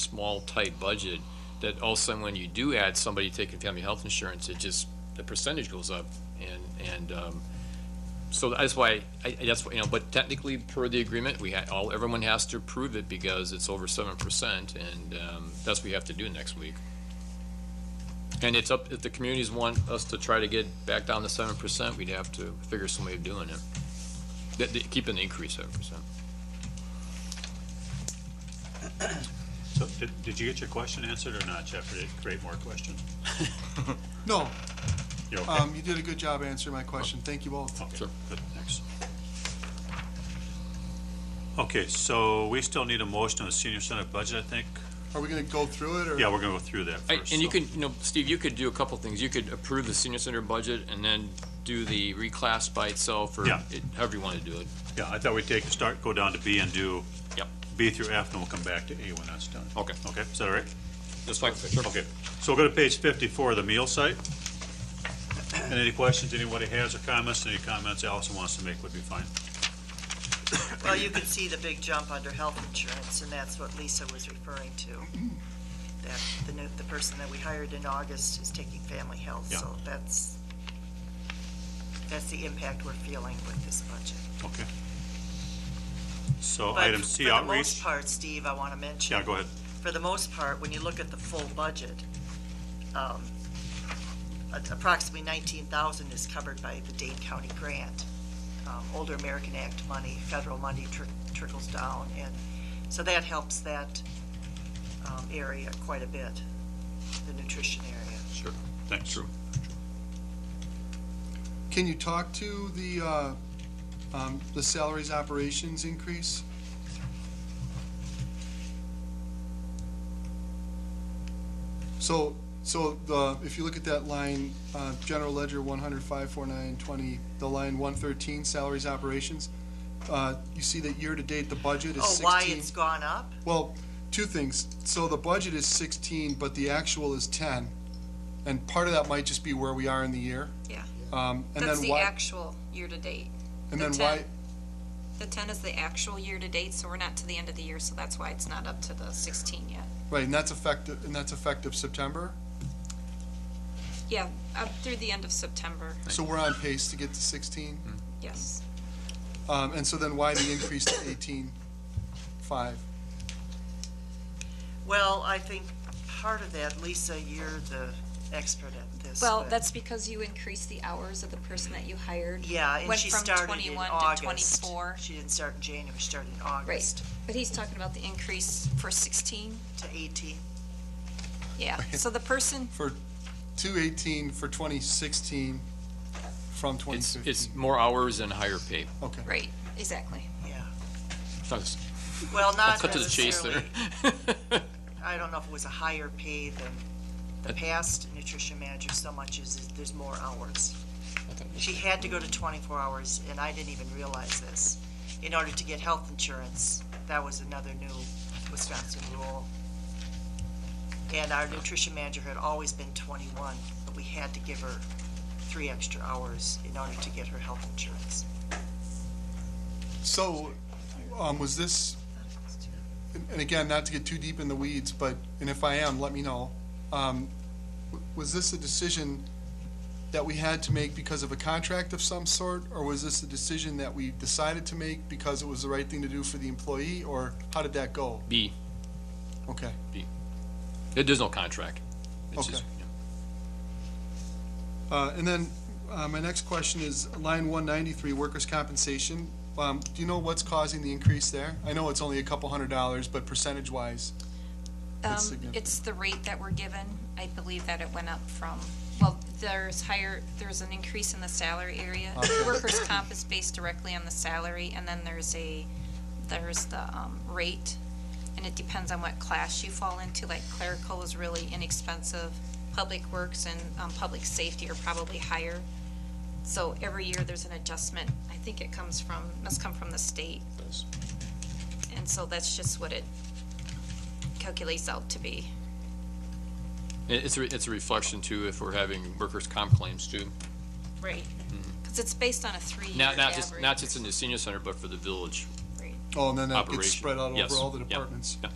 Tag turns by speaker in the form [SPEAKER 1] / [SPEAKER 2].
[SPEAKER 1] small, tight budget, that all of a sudden when you do add somebody taking family health insurance, it just, the percentage goes up and, and, um, so that's why, I, I- that's, why, you know, but technically per the agreement, we had, all, everyone has to approve it because it's over seven percent and, um, that's what we have to do next week. And it's up, if the communities want us to try to get back down to seven percent, we'd have to figure some way of doing it. That- that- keeping the increase seven percent.
[SPEAKER 2] So did, did you get your question answered or not, Jeff? Or Did it create more questions?
[SPEAKER 3] No,
[SPEAKER 2] You're okay?
[SPEAKER 3] um, you did a good job answering my question. Thank you both.
[SPEAKER 2] Okay,
[SPEAKER 1] sure.
[SPEAKER 2] good, thanks. Okay, so we still need a motion on the senior center budget, I think.
[SPEAKER 3] Are we gonna go through it or?
[SPEAKER 2] Yeah, we're gonna go through that
[SPEAKER 1] I-
[SPEAKER 2] first.
[SPEAKER 1] And you
[SPEAKER 2] so-
[SPEAKER 1] could, you know, Steve, you could do a couple things. You could approve the senior center budget and then do the reclass by itself or
[SPEAKER 2] Yeah.
[SPEAKER 1] it- however you want to do it.
[SPEAKER 2] Yeah, I thought we'd take, start, go down to B and do
[SPEAKER 1] Yep.
[SPEAKER 2] B through F, and we'll come back to A when that's done.
[SPEAKER 1] Okay.
[SPEAKER 2] Okay, is that all right?
[SPEAKER 1] That's fine.
[SPEAKER 2] Okay, so we'll go to page fifty-four, the meal site. And any questions anybody has or comments, any comments Allison wants to make would be fine.
[SPEAKER 4] Well, you can see the big jump under health insurance, and that's what Lisa was referring to. That the new, the person that we hired in August is taking family health,
[SPEAKER 2] Yeah.
[SPEAKER 4] so that's, that's the impact we're feeling with this budget.
[SPEAKER 2] Okay. So
[SPEAKER 4] But
[SPEAKER 2] item C
[SPEAKER 4] For the most
[SPEAKER 2] outreach.
[SPEAKER 4] part, Steve, I want to mention.
[SPEAKER 2] Yeah, go ahead.
[SPEAKER 4] For the most part, when you look at the full budget, um, a- approximately nineteen thousand is covered by the Dane County grant. Um, Older American Act money, federal money tr- trickles down, and so that helps that, um, area quite a bit, the nutrition area.
[SPEAKER 2] Sure. Thanks. True.
[SPEAKER 3] Can you talk to the, uh, um, the salaries operations increase? So, so the, if you look at that line, uh, general ledger one hundred five four nine twenty, the line one thirteen, salaries operations, uh, you see that year-to-date, the budget is
[SPEAKER 4] Oh,
[SPEAKER 3] sixteen.
[SPEAKER 4] why it's gone up?
[SPEAKER 3] Well, two things. So the budget is sixteen, but the actual is ten. And part of that might just be where we are in the year.
[SPEAKER 5] Yeah.
[SPEAKER 3] Um, and
[SPEAKER 5] That's
[SPEAKER 3] then
[SPEAKER 5] the
[SPEAKER 3] why,
[SPEAKER 5] actual year-to-date.
[SPEAKER 3] and
[SPEAKER 5] the
[SPEAKER 3] then
[SPEAKER 5] 10.
[SPEAKER 3] why,
[SPEAKER 5] The ten is the actual year-to-date, so we're not to the end of the year, so that's why it's not up to the sixteen yet.
[SPEAKER 3] right, and that's effective, and that's effective September.
[SPEAKER 5] Yeah, up through the end of September,
[SPEAKER 3] So we're on pace to get to sixteen.
[SPEAKER 5] yes.
[SPEAKER 3] Um, and so then why the increase to eighteen five?
[SPEAKER 4] Well, I think part of that, Lisa, you're the expert at this.
[SPEAKER 5] Well,
[SPEAKER 4] but-
[SPEAKER 5] that's because you increased the hours of the person that you hired.
[SPEAKER 4] Yeah, and
[SPEAKER 5] Went
[SPEAKER 4] she
[SPEAKER 5] from
[SPEAKER 4] started in
[SPEAKER 5] 21 to
[SPEAKER 4] August.
[SPEAKER 5] 24.
[SPEAKER 4] She didn't start in January, she started in August
[SPEAKER 5] Right, but he's talking about the increase for sixteen,
[SPEAKER 4] to 18.
[SPEAKER 5] yeah. So the person,
[SPEAKER 3] For two eighteen for twenty sixteen from twenty
[SPEAKER 1] It's,
[SPEAKER 3] fifteen.
[SPEAKER 1] it's more hours and higher pay.
[SPEAKER 3] Okay.
[SPEAKER 5] right, exactly.
[SPEAKER 4] Yeah.
[SPEAKER 1] That's-
[SPEAKER 4] Well,
[SPEAKER 1] I'll
[SPEAKER 4] not
[SPEAKER 1] cut to the chase there.
[SPEAKER 4] necessarily, I don't know if it was a higher pay than the past nutrition manager so much as is there's more hours. She had to go to 24 hours, and I didn't even realize this, in order to get health insurance. That was another new Wisconsin rule. And our nutrition manager had always been 21, but we had to give her three extra hours in order to get her health insurance.
[SPEAKER 3] So, um, was this, and- and again, not to get too deep in the weeds, but, and if I am, let me know. Um, w- was this a decision that we had to make because of a contract of some sort? Or was this a decision that we decided to make because it was the right thing to do for the employee? Or how did that go?
[SPEAKER 1] B,
[SPEAKER 3] Okay,
[SPEAKER 1] there's no contract. It's just-
[SPEAKER 3] Okay. uh, and then, uh, my next question is line one ninety-three, workers' compensation. Um, do you know what's causing the increase there? I know it's only a couple hundred dollars, but percentage-wise, That's
[SPEAKER 5] Um,
[SPEAKER 3] significant.
[SPEAKER 5] it's the rate that we're given. I believe that it went up from, well, there's higher, there's an increase in the salary area.
[SPEAKER 3] Okay.
[SPEAKER 5] Workers' comp is based directly on the salary, and then there's a, there's the, um, rate. And it depends on what class you fall into, like clerical is really inexpensive. Public works and, um, public safety are probably higher. So every year there's an adjustment. I think it comes from, must come from the state. And so that's just what it calculates out to be.
[SPEAKER 1] It- It's, a re- it's a reflection too, if we're having workers' comp claims too.
[SPEAKER 5] Right. Because it's based on a three-year
[SPEAKER 1] Not,
[SPEAKER 5] average.
[SPEAKER 1] not just, not just in the senior center, but for the village.
[SPEAKER 5] Right.
[SPEAKER 3] oh, and then that
[SPEAKER 1] Operation.
[SPEAKER 3] gets spread out
[SPEAKER 1] Yes.
[SPEAKER 3] over all the
[SPEAKER 1] Yep.
[SPEAKER 3] departments.
[SPEAKER 1] Yeah.